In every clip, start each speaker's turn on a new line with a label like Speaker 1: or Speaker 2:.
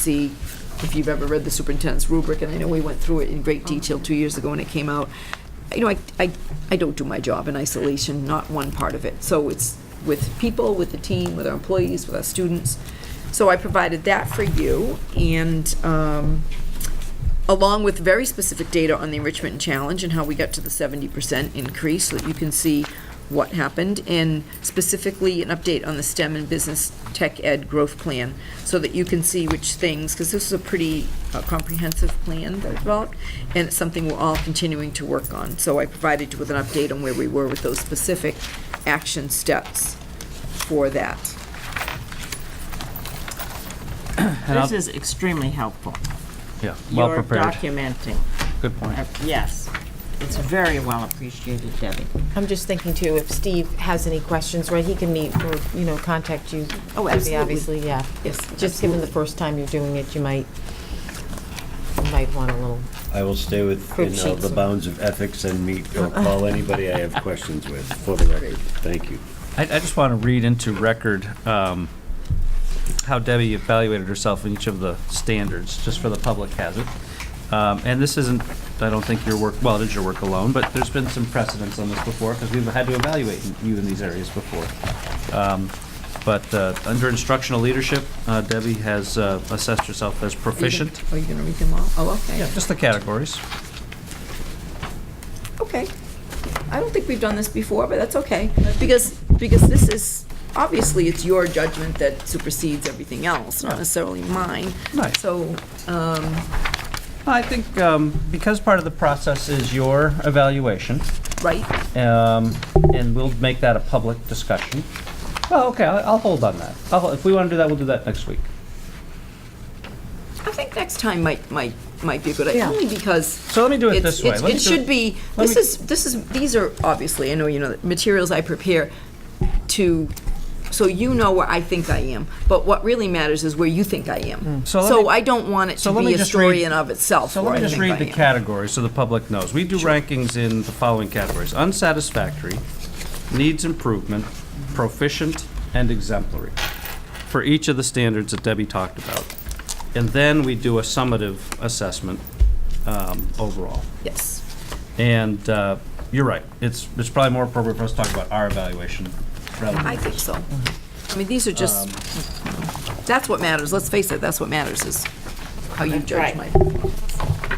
Speaker 1: see if you've ever read the superintendent's rubric, and I know we went through it in great detail two years ago when it came out. You know, I, I, I don't do my job in isolation, not one part of it. So it's with people, with the team, with our employees, with our students. So I provided that for you, and, um, along with very specific data on the enrichment and challenge and how we got to the seventy percent increase, so that you can see what happened, and specifically an update on the STEM and business tech ed growth plan, so that you can see which things, because this is a pretty uh, comprehensive plan that I developed, and it's something we're all continuing to work on. So I provided you with an update on where we were with those specific action steps for that.
Speaker 2: This is extremely helpful.
Speaker 3: Yeah, well
Speaker 2: You're
Speaker 3: prepared.
Speaker 2: documenting,
Speaker 3: Good point.
Speaker 2: Uh, yes. It's very well appreciated, Debbie.
Speaker 4: I'm just thinking too, if Steve has any questions, right, he can meet or, you know, contact you.
Speaker 1: Oh,
Speaker 4: Debbie,
Speaker 1: absolutely.
Speaker 4: Obviously, yeah.
Speaker 1: Yes,
Speaker 4: Just
Speaker 1: absolutely.
Speaker 4: given the first time you're doing it, you might, you might want a little,
Speaker 5: I will stay within uh,
Speaker 4: sheets.
Speaker 5: the bounds of ethics and meet or call anybody I have questions with, for the record. Thank you.
Speaker 3: I, I just want to read into record um, how Debbie evaluated herself in each of the standards, just for the public hazard. Um, and this isn't, I don't think your work, well, it is your work alone, but there's been some precedence on this before because we've had to evaluate you in these areas before. Um, but uh, under instructional leadership, uh, Debbie has uh, assessed herself as proficient.
Speaker 1: Are you gonna read them all? Oh, okay.
Speaker 3: Yeah, just the categories.
Speaker 1: Okay. I don't think we've done this before, but that's okay. Because, because this is, obviously, it's your judgment that supersedes everything else, not necessarily mine.
Speaker 3: Right.
Speaker 1: So,
Speaker 3: I think um, because part of the process is your evaluation,
Speaker 1: right,
Speaker 3: um, and we'll make that a public discussion. Well, okay, I'll, I'll hold on that. I'll, hol- if we want to do that, we'll do that next week.
Speaker 1: I think next time might, might, might be a good idea,
Speaker 4: Yeah.
Speaker 1: only because
Speaker 3: So let me do it
Speaker 1: It's-
Speaker 3: this way.
Speaker 1: it's-
Speaker 3: Let me
Speaker 1: It
Speaker 3: do
Speaker 1: should be,
Speaker 3: let
Speaker 1: this
Speaker 3: me-
Speaker 1: is, this is, these are, obviously, I know you know, the materials I prepare to, so you know where I think I am, but what really matters is where you think I am.
Speaker 3: Mm. So let
Speaker 1: So
Speaker 3: me-
Speaker 1: I don't want it
Speaker 3: so
Speaker 1: to
Speaker 3: let
Speaker 1: be
Speaker 3: me
Speaker 1: a
Speaker 3: just
Speaker 1: story
Speaker 3: read-
Speaker 1: in of itself
Speaker 3: So
Speaker 1: where
Speaker 3: let me
Speaker 1: I
Speaker 3: just
Speaker 1: think I
Speaker 3: read the
Speaker 1: am.
Speaker 3: categories so the public knows. We do rankings in the following categories: unsatisfactory, needs improvement, proficient, and exemplary. For each of the standards that Debbie talked about, and then we do a summative assessment um, overall.
Speaker 1: Yes.
Speaker 3: And uh, you're right. It's it's probably more appropriate for us to talk about our evaluation rather than
Speaker 1: I think so. I mean, these are just,
Speaker 3: Um,
Speaker 1: that's what matters, let's face it, that's what matters, is how you judge
Speaker 2: Right.
Speaker 1: my,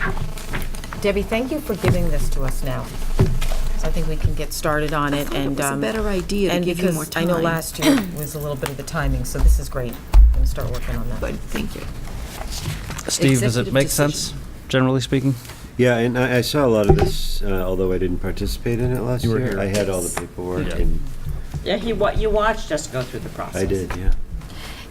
Speaker 4: Debbie, thank you for giving this to us now. So I think we can get started on it and.
Speaker 1: was a
Speaker 4: um,
Speaker 1: better idea to
Speaker 4: and
Speaker 1: give you more
Speaker 4: because I know
Speaker 1: time.
Speaker 4: last year was a little bit of the timing, so this is great. I'm gonna start working on that.
Speaker 1: but thank you.
Speaker 3: Steve, does it
Speaker 1: Executive
Speaker 3: make
Speaker 1: decision.
Speaker 3: sense, generally speaking?
Speaker 5: Yeah, and I, I saw a lot of this, uh, although I didn't participate in it last
Speaker 3: You were
Speaker 5: year.
Speaker 3: here.
Speaker 5: I had all the paperwork
Speaker 3: Yeah.
Speaker 5: and
Speaker 2: Yeah, he, wa- you watched us go through the process.
Speaker 5: I did, yeah.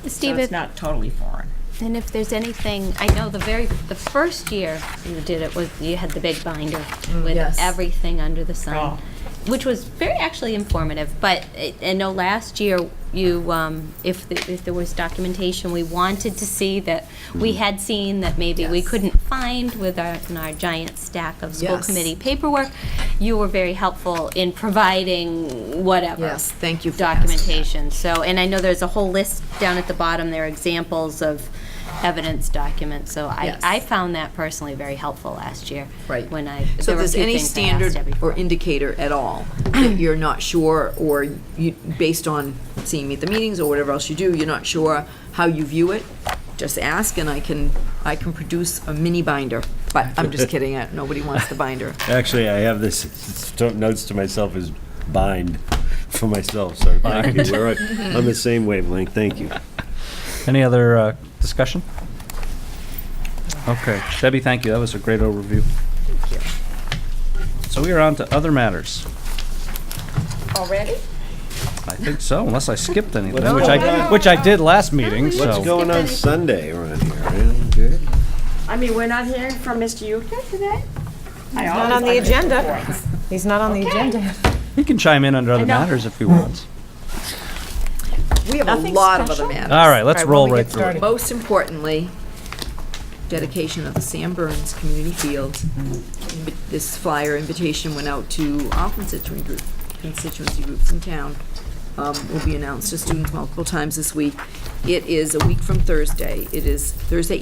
Speaker 2: So
Speaker 6: Steve,
Speaker 2: it's
Speaker 6: if-
Speaker 2: not totally foreign.
Speaker 6: and if there's anything, I know the very, the first year you did it was, you had the big binder with
Speaker 1: Mm, Yes.
Speaker 6: everything under the
Speaker 2: Oh.
Speaker 6: sun, which was very actually informative, but I I know last year you, um, if, the- if there was documentation we wanted to see that we had seen that maybe we
Speaker 1: Yes.
Speaker 6: couldn't find with our, in our giant stack of school
Speaker 1: Yes.
Speaker 6: committee paperwork, you were very helpful in providing whatever.
Speaker 1: Yes, thank you for asking.
Speaker 6: Documentation, so, and I know there's a whole list down at the bottom, there are examples of evidence documents, so I,
Speaker 1: Yes.
Speaker 6: I found that personally very helpful last year.
Speaker 1: Right.
Speaker 6: When I,
Speaker 1: So
Speaker 6: there
Speaker 1: if
Speaker 6: were a
Speaker 1: there's
Speaker 6: few
Speaker 1: any
Speaker 6: things I asked
Speaker 1: standard
Speaker 6: Debbie
Speaker 1: or
Speaker 6: for.
Speaker 1: indicator at all that you're not sure, or you, based on seeing me at the meetings or whatever else you do, you're not sure how you view it, just ask, and I can, I can produce a mini binder. But I'm just kidding, I- nobody wants the binder.
Speaker 5: Actually, I have this, s- s- notes to myself as bind for myself, so thank you. We're on on the same wavelength, thank you.
Speaker 3: Any other uh, discussion? Okay, Debbie, thank you, that was a great overview. So we are on to other matters.
Speaker 1: Already?
Speaker 3: I think so, unless I skipped anything, which I, which I did last meeting, so.
Speaker 5: What's going on Sunday around here? Anything good?
Speaker 2: I mean, we're not hearing from Mr. Yuka today? I
Speaker 4: Not
Speaker 2: always
Speaker 4: on the
Speaker 2: like his
Speaker 4: agenda.
Speaker 2: reports.
Speaker 4: He's not on the agenda.
Speaker 3: He can chime in under other matters if he wants.
Speaker 1: We have a
Speaker 4: Nothing
Speaker 1: lot of other
Speaker 4: special?
Speaker 1: matters.
Speaker 3: All right, let's
Speaker 4: All right, why don't
Speaker 3: roll
Speaker 4: we
Speaker 3: right
Speaker 4: get
Speaker 3: through it.
Speaker 4: started?
Speaker 1: Most importantly, dedication of the Sam Burns Community Field. Invi- This flyer invitation went out to all constituent group, constituency groups in town. Um, Will be announced to students multiple times this week. It is a week from Thursday. It is Thursday